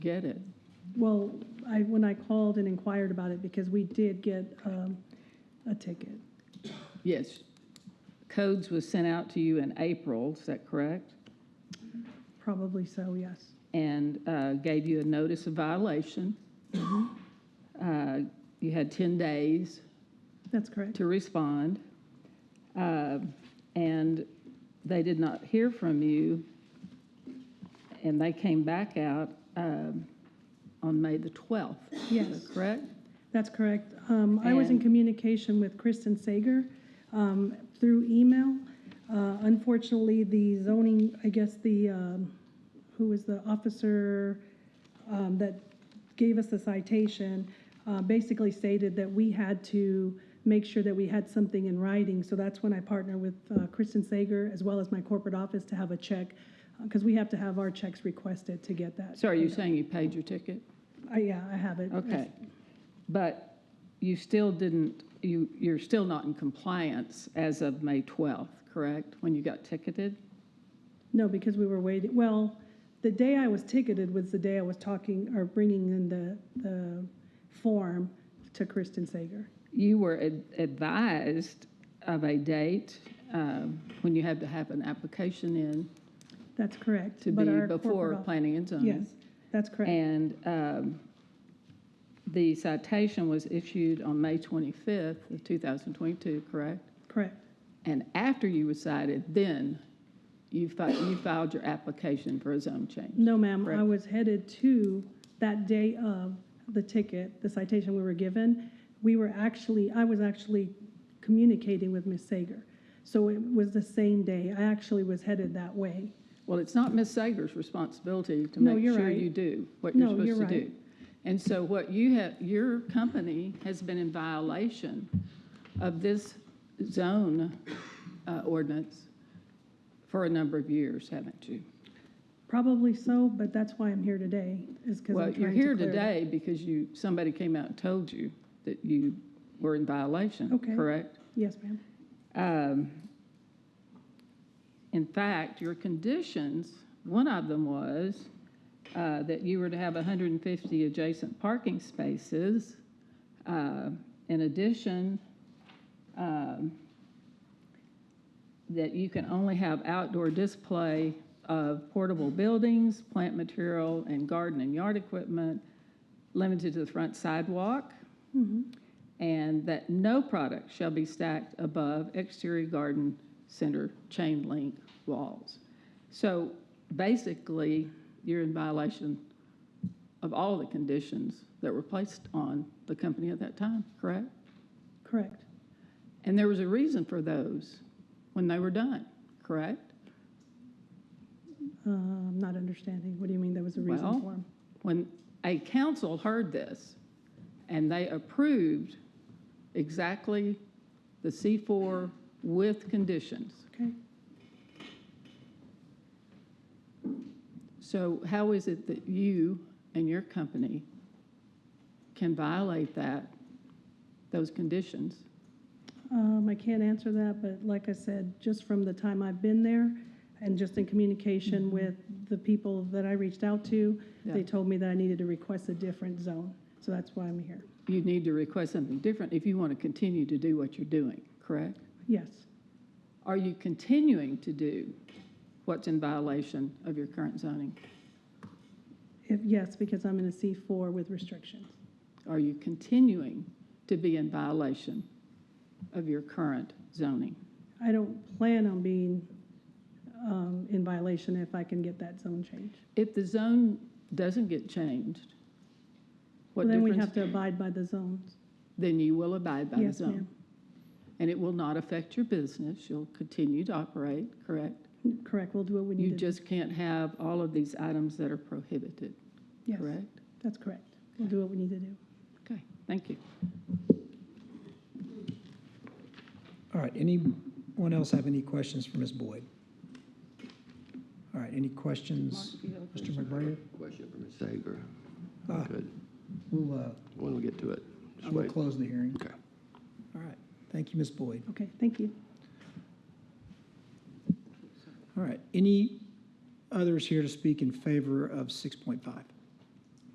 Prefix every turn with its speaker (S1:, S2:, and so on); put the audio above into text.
S1: get it.
S2: Well, I, when I called and inquired about it, because we did get um, a ticket.
S1: Yes. Codes was sent out to you in April, is that correct?
S2: Probably so, yes.
S1: And uh, gave you a notice of violation. Uh, You had 10 days
S2: That's correct.
S1: to respond. Uh, And they did not hear from you. And they came back out um, on May the 12th. Is that
S2: Yes.
S1: Correct?
S2: That's correct. Um, I was in
S1: And-
S2: communication with Kristen Sager um, through email. Uh, Unfortunately, the zoning, I guess the, um, who was the officer um, that gave us the citation, uh, basically stated that we had to make sure that we had something in writing. So that's when I partner with uh, Kristen Sager as well as my corporate office to have a check, because we have to have our checks requested to get that.
S1: So are you saying you paid your ticket?
S2: I- Yeah, I have it.
S1: Okay, but you still didn't, you, you're still not in compliance as of May 12th, correct? When you got ticketed?
S2: No, because we were waiting, well, the day I was ticketed was the day I was talking or bringing in the, the form to Kristen Sager.
S1: You were ad- advised of a date um, when you had to have an application in
S2: That's correct.
S1: to
S2: but
S1: be
S2: our
S1: before
S2: corporate off-
S1: planning and zoning.
S2: Yes, that's correct.
S1: And um, the citation was issued on May 25th of 2022, correct?
S2: Correct.
S1: And after you were cited, then you fi- you filed your application for a zone change.
S2: No, ma'am, I
S1: Correct.
S2: was headed to that day of the ticket, the citation we were given. We were actually, I was actually communicating with Ms. Sager. So it was the same day. I actually was headed that way.
S1: Well, it's not Ms. Sager's responsibility to
S2: No,
S1: make
S2: you're
S1: sure
S2: right.
S1: you do what you're
S2: No, you're
S1: supposed to
S2: right.
S1: do. And so what you have, your company has been in violation of this zone uh, ordinance for a number of years, haven't you?
S2: Probably so, but that's why I'm here today, is because
S1: Well,
S2: I'm trying to clear
S1: you're here
S2: it up.
S1: today because you, somebody came out and told you that you were in violation,
S2: Okay.
S1: correct?
S2: Yes, ma'am.
S1: Um, In fact, your conditions, one of them was uh, that you were to have 150 adjacent parking spaces. Uh, In addition, um, that you can only have outdoor display of portable buildings, plant material, and garden and yard equipment limited to the front sidewalk and that no product shall be stacked above exterior garden center chain link walls. So basically, you're in violation of all the conditions that were placed on the company at that time, correct?
S2: Correct.
S1: And there was a reason for those when they were done, correct?
S2: Uh, I'm not understanding. What do you mean there was a
S1: Well-
S2: reason for him?
S1: When a council heard this and they approved exactly the C4 with conditions,
S2: Okay.
S1: So how is it that you and your company can violate that, those conditions?
S2: Um, I can't answer that, but like I said, just from the time I've been there and just in communication with the people that I reached out to, they
S1: Mm-hmm. Yeah.
S2: told me that I needed to request a different zone. So that's why I'm here.
S1: You need to request something different if you want to continue to do what you're doing, correct?
S2: Yes,
S1: Are you continuing to do what's in violation of your current zoning?
S2: if, yes, because I'm in a C4 with restrictions.
S1: Are you continuing to be in violation of your current zoning?
S2: I don't plan on being um, in violation if I can get that zone change.
S1: If the zone doesn't get changed, what
S2: Then we
S1: difference?
S2: have to abide by the zones.
S1: Then you will abide by the
S2: Yes,
S1: zone.
S2: ma'am.
S1: And it will not affect your business. You'll continue to operate, correct?
S2: Correct, we'll do what we need to
S1: You
S2: do.
S1: just can't have all of these items that are prohibited,
S2: Yes,
S1: correct?
S2: That's correct. We'll do what we need to do.
S1: Okay, thank you.
S3: All right, anyone else have any questions for Ms. Boyd? All right, any questions, Mr. McBrayer?
S4: Question for Ms. Sager.
S3: Ah.
S4: Good.
S3: We'll, uh,
S4: When we get to it. Just
S3: we'll
S4: wait.
S3: close the hearing.
S4: Okay.
S3: All right, thank you, Ms. Boyd.
S2: Okay, thank you.
S3: All right, any others here to speak in favor of 6.5?